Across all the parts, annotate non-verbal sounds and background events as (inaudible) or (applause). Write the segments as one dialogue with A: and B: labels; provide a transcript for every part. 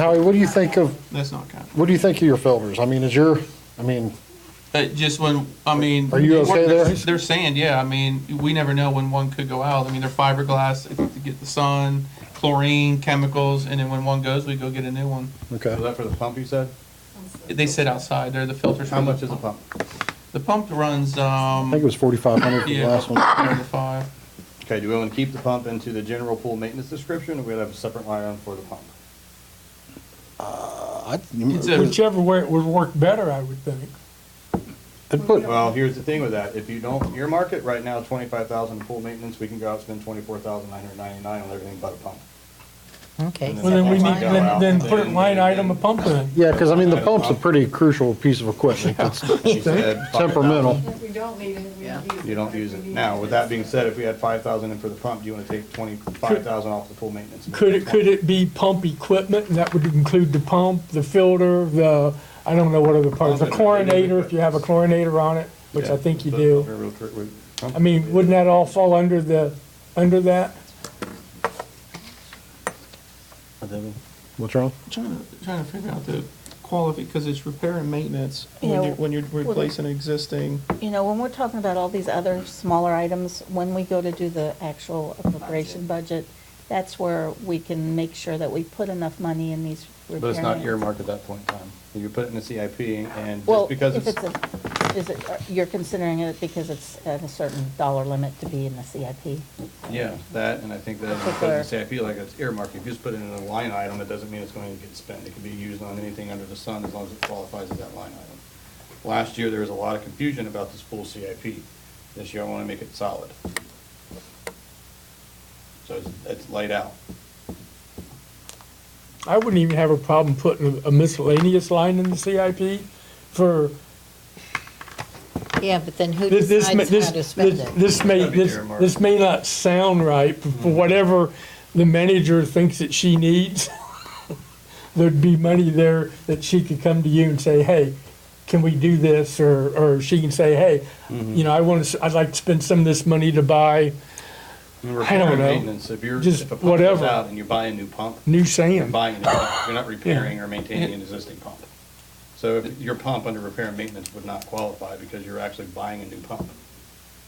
A: Howie, what do you think of,
B: That's not counting.
A: what do you think of your filters? I mean, is your, I mean,
B: Uh, just when, I mean.
A: Are you okay there?
B: They're- They're sand, yeah. I mean, we never know when one could go out. I mean, they're fiberglass, to get the sun, chlorine, chemicals, and then when one goes, we go get a new one.
A: okay.
C: Was that for the pump you said?
B: They sit outside, they're the filters. for
C: How
B: the
C: much is a
B: pump.
C: pump?
B: The pump runs,
A: I
B: um,
A: think it was 4,500 for the
B: yeah,
A: last one.
B: around the five.
C: Okay, do we want to keep the pump into the general pool maintenance description, or we have a separate line item for the pump?
A: Uh, I-
B: It's a-
D: Whichever way it would work better, I would think.
A: I'd put-
C: Well, here's the thing with that, if you don't earmark it, right now, twenty-five thousand in pool maintenance, we can go out and spend twenty-four thousand nine hundred ninety-nine on everything but a pump.
E: Okay.
C: And
D: Well, then we
C: That's
D: need,
C: fine.
D: then, then put it line item a pump in.
A: Yeah, because I mean, the pump's a pretty crucial piece of equipment. It's
C: (laughs) You said $5,000.
A: temperamental.
F: If we don't need it, we don't use it.
C: You don't
F: but
C: use
F: we
C: it.
F: need
C: Now, with that being said, if we had five thousand in for the pump, do you want to take twenty-five thousand off the pool maintenance?
D: Could it, could it be pump equipment, and that would include the pump, the filter, the, I don't know what other part, the chlorinator, if you have a chlorinator on it, which I think you do. I mean, wouldn't that all fall under the, under that?
A: What's wrong?
B: Trying to, trying to figure out the quality, because it's repair and maintenance
E: Yeah,
B: when you're, when you're replacing existing.
E: You know, when we're talking about all these other smaller items, when we go to do the actual appropriation budget, that's where we can make sure that we put enough money in these repair.
C: But it's not
E: and-
C: earmarked at that point in time. You put it in the CIP and
E: Well,
C: just because
E: if it's
C: it's,
E: a, is it, uh, you're considering it because it's at a certain dollar limit to be in the CIP?
C: yeah, that, and I think that
E: Particular.
C: because the CIP, like it's earmarked, if you just put it in a line item, it doesn't mean it's going to get spent. It can be used on anything under the sun as long as it qualifies as that line item. Last year, there was a lot of confusion about this pool CIP. This year, I want to make it solid. So it's, it's laid out.
D: I wouldn't even have a problem putting a miscellaneous line in the CIP for,
G: Yeah, but then who
D: this, this, may-
G: decides
D: this,
G: how to spend
D: this-
G: it?
D: this may,
C: Gotta be Mm-hmm.
D: this,
C: earmarked.
D: this may not sound right, but for whatever the manager thinks that she needs, (laughs) there'd be money there that she could come to you and say, hey, can we do this? Or, or she can say, hey,
C: Mm-hmm.
D: you know, I want to, I'd like to spend some of this money to buy
C: I
D: don't know.
C: If you're,
D: Just
C: if a pump goes
D: whatever.
C: out and you buy a new pump,
D: new
C: you're
D: sand.
C: buying a new pump, you're not repairing or maintaining an existing pump. So if your pump under repair and maintenance would not qualify because you're actually buying a new pump.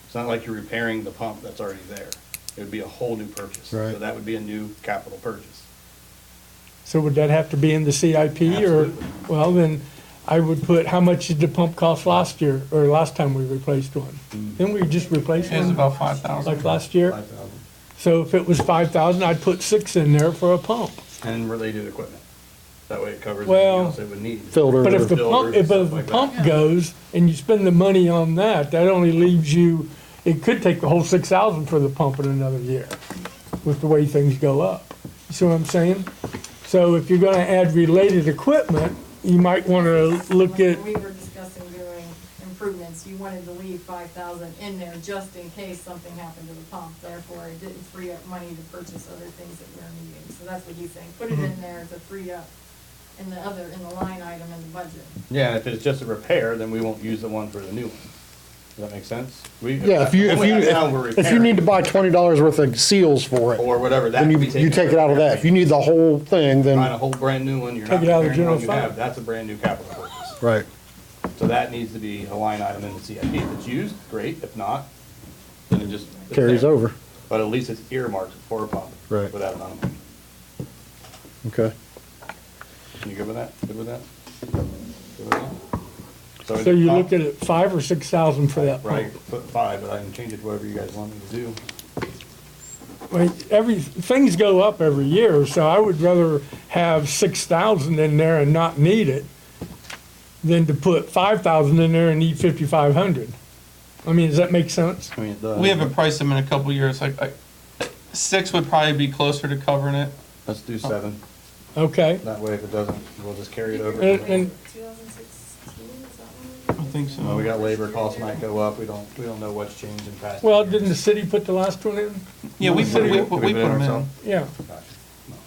C: It's not like you're repairing the pump that's already there. It would be a whole new purchase. So
A: Right.
C: that would be a new capital purchase.
D: So would that have to be in the CIP or,
C: Absolutely.
D: well, then I would put, how much did the pump cost last year or last time we replaced one?
C: Mm-hmm.
D: Didn't we just replace
B: It was
D: one
B: about five thousand.
D: like last year? So if it was five thousand, I'd put six in there for a pump.
C: And related equipment. That way it covers anything
D: Well-
C: else it would need.
A: Filter.
D: But if the
C: Builders
D: pump,
C: and
D: if
C: stuff
D: the
C: like that.
D: pump goes and you spend the money on that, that only leaves you, it could take the whole six thousand for the pump in another year with the way things go up. You see what I'm saying? So if you're gonna add related equipment, you might wanna look
F: When
D: at,
F: we were discussing doing improvements, you wanted to leave five thousand in there just in case something happened to the pump. Therefore, it didn't free up money to purchase other things that we were needing. So that's what he's saying. Put it in there to free up in the other, in the line item in the budget.
C: Yeah, and if it's just a repair, then we won't use the one for the new one. Does that make sense? We-
A: Yeah, if you, if
C: only
A: you,
C: that's how we're
A: if you
C: repairing.
A: need to buy $20 worth of seals for it,
C: or whatever that.
A: then you,
C: could be
A: you take it out of that. If you need the whole thing,
C: Find a
A: then,
C: whole brand new one, you're
D: Take
C: not
D: it out of the
C: repairing the one you
D: general
C: have,
D: fund.
C: that's a brand new capital purchase.
A: right.
C: So that needs to be a line item in the CIP. If it's used, great, if not, then it just. it's
A: Carries
C: there.
A: over.
C: But at least it's earmarked for a pump.
A: Right.
C: For that amount of money.
A: Okay.
C: You good with that? Good with that? Good with that? is
D: so
C: it
D: you
C: pump?
D: look at five or six thousand for that pump.
C: Right, put five, but I can change it to whatever you guys want me to do.
D: Well, every, things go up every year, so I would rather have six thousand in there and not need it than to put five thousand in there and need fifty-five hundred. I mean, does that make sense?
C: I mean, it does.
B: We haven't priced them in a couple years, like, I- six would probably be closer to covering it.
C: Let's do seven.
D: Okay,
C: That way if it doesn't, we'll just carry it over.
D: And- and-
F: Two thousand sixteen, is that when we?
B: I think
C: Well, we
B: so.
C: got labor costs might go up. We don't, we don't know what's changed in past.
D: well,
C: years.
D: didn't the city put the last one in?
B: Yeah, we put, we,
C: Did
B: put- we put
C: it
B: them in.
C: ourselves?
D: Yeah,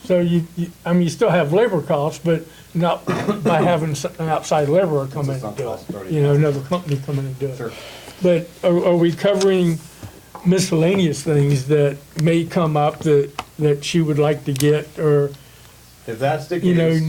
D: so you, you, I mean, you still have labor costs, but not by having s- an outside laborer come in and do it. You know, another company come in and do it.
C: Sure.
D: But are, are we covering miscellaneous things that may come up that, that she would like to get, or
C: If that's the
D: You know,
C: case.